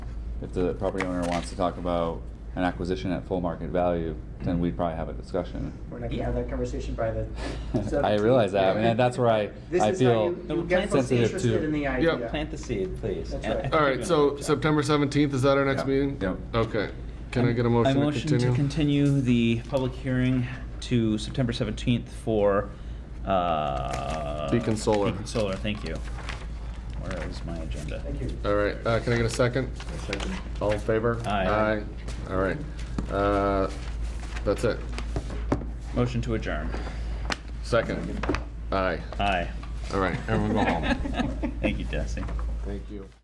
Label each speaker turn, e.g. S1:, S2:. S1: if the property owner wants to talk about an acquisition at full market value, then
S2: Mm-hmm.
S1: we'd probably have a discussion.
S2: We're not gonna have that conversation by the.
S1: I realize that, I mean, that's where I,
S2: This
S1: I
S2: is how
S1: feel
S2: you,
S3: No,
S2: you get
S3: plants-
S2: folks
S1: sensitive
S2: interested in
S1: to.
S2: the idea.
S3: Plant the seed, please.
S2: That's
S3: And I
S2: right.
S3: think
S2: All
S4: All
S3: you're doing
S4: right,
S3: a
S4: so
S3: good job.
S4: September 17th, is that our next
S1: Yeah.
S4: meeting?
S1: Yeah.
S4: Okay. Can I get a motion
S3: I
S4: to
S3: motion to
S4: continue?
S3: continue the public hearing to September 17th for, uh...
S4: Beacon Solar.
S3: Beacon Solar, thank you. Where is my agenda?
S2: Thank you.
S4: All right, uh, can I get a second? All in favor?
S3: Aye.
S4: Aye. All right. Uh, That's it.
S3: Motion to adjourn.
S4: Second. Aye.
S3: Aye.
S4: All right, everyone go home.
S3: Thank you, Desi.
S4: Thank you.